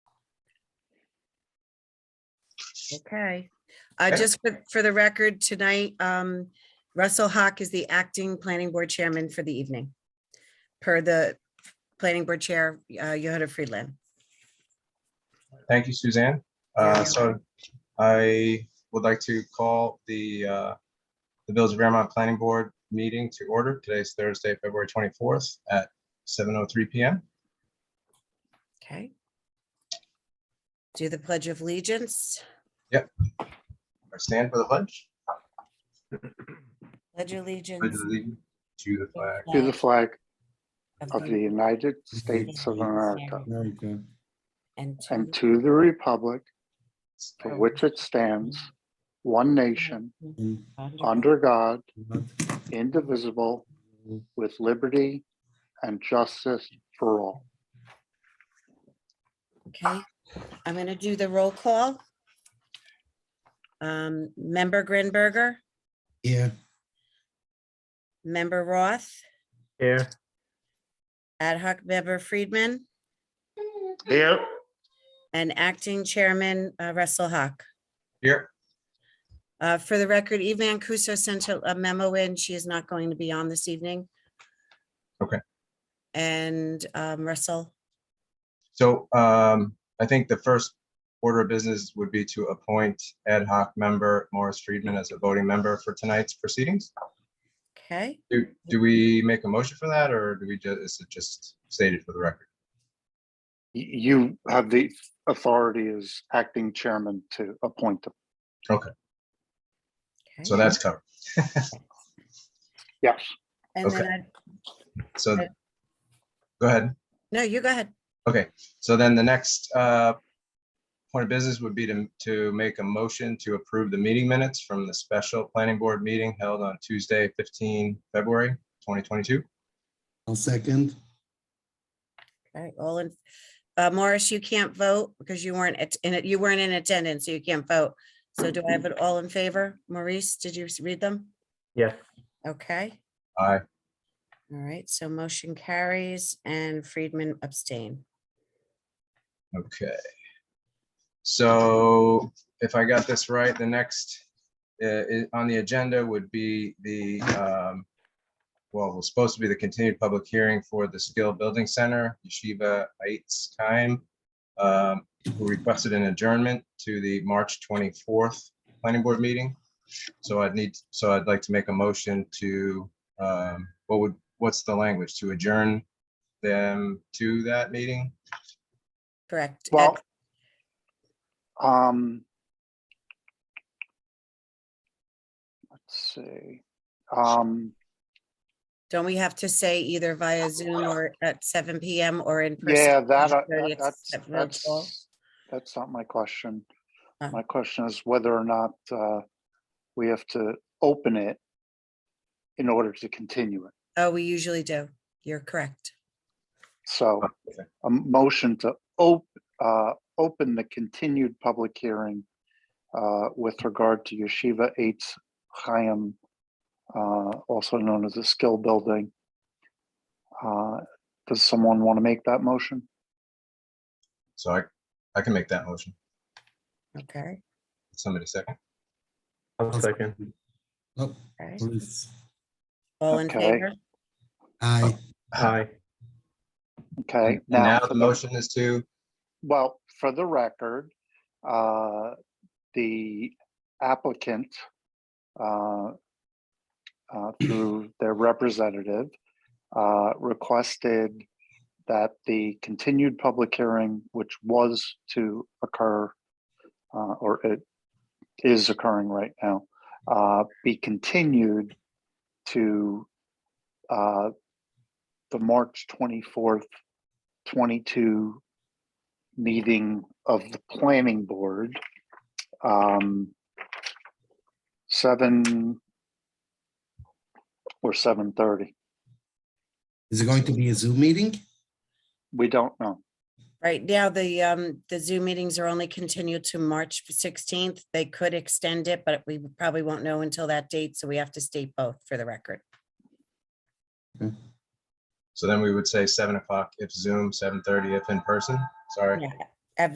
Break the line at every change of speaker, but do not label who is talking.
Okay, uh, just for, for the record tonight, um, Russell Hawk is the acting planning board chairman for the evening. Per the planning board chair, uh, Yehuda Friedland.
Thank you, Suzanne. Uh, So I would like to call the, uh, the Village of Vermont Planning Board meeting to order. Today's Thursday, February 24th at 7:03 PM.
Okay. Do the pledge of allegiance,
I stand for the pledge.
pledge
Pledge
allegiance.
allegiance To the flag
To the flag
of
of the
the-
United States of America
America,
And to
and to the republic for which it stands, one nation, under God, indivisible, with liberty and justice for all.
Okay, I'm gonna do the roll call. Um, member Grinberger,
yeah,
member Roth,
Here.
ad hoc member Friedman,
Here.
and acting chairman uh, Russell Hawk.
here.
Uh, For the record, Eve Mancuso sent a a memo in. She is not going to be on this evening.
Okay.
And um, Russell,
So um, I think the first order of business would be to appoint ad hoc member Morris Friedman as a voting member for tonight's proceedings.
okay,
Do, do we make a motion for that or do we just, is it just stated for the record?
Y- You have the authority as acting chairman to appoint them.
So
okay.
that's covered.
Yes,
And then, I-
So,
Okay.
go ahead.
no, you go ahead.
Okay, so then the next uh, point of business would be to, to make a motion to approve the meeting minutes from the special planning board meeting held on Tuesday, 15 February 2022.
I'll second.
All right, all in, uh, Morris, you can't vote because you weren't at- in it, you weren't in attendance, so you can't vote. So do I have it all in favor? Maurice, did you s- read them?
Yes.
Okay,
Aye.
all right, so motion carries and Friedman abstain.
Okay. So if I got this right, the next uh, i- on the agenda would be the, um, well, was supposed to be the continued public hearing for the Skill Building Center, Yeshiva Heights Time, who requested an adjournment to the March 24th Planning Board meeting. So I'd need, so I'd like to make a motion to, um, what would, what's the language? To adjourn them to that meeting?
Correct. Ed-
well, um, let's see, um,
Don't we have to say either via Zoom or at seven PM or in person?
Yeah, that, I-
Usually
that-
it's
that's,
at roll call.
that's, that's not my question.
Oh.
My question is whether or not, uh, we have to open it in order to continue it.
Oh, we usually do. You're correct.
So
Oh, Okay.
a motion to op, uh, open the continued public hearing, uh, with regard to Yeshiva Eitz Chaim, uh, also known as the Skill Building. Uh, does someone want to make that motion?
So I, I can make that motion.
Okay.
Somebody second.
I'll second.
Oh,
okay.
please.
All in
Okay.
favor?
Aye,
Aye.
Okay.
And now
for
the motion is to,
Well, for the record, uh, the applicant, uh, uh, through their representative, uh, requested that the continued public hearing, which was to occur, uh, or it is occurring right now, uh, be continued to, uh, the March twenty-fourth, twenty-two meeting of the planning board. um, Seven or seven thirty,
is it going to be a Zoom meeting?
we don't know.
Right now, the, um, the Zoom meetings are only continued to March sixteenth. They could extend it, but we probably won't know until that date, so we have to state both for the record.
so then we would say seven o'clock if Zoom, seven thirty if in person. Sorry.
Yeah,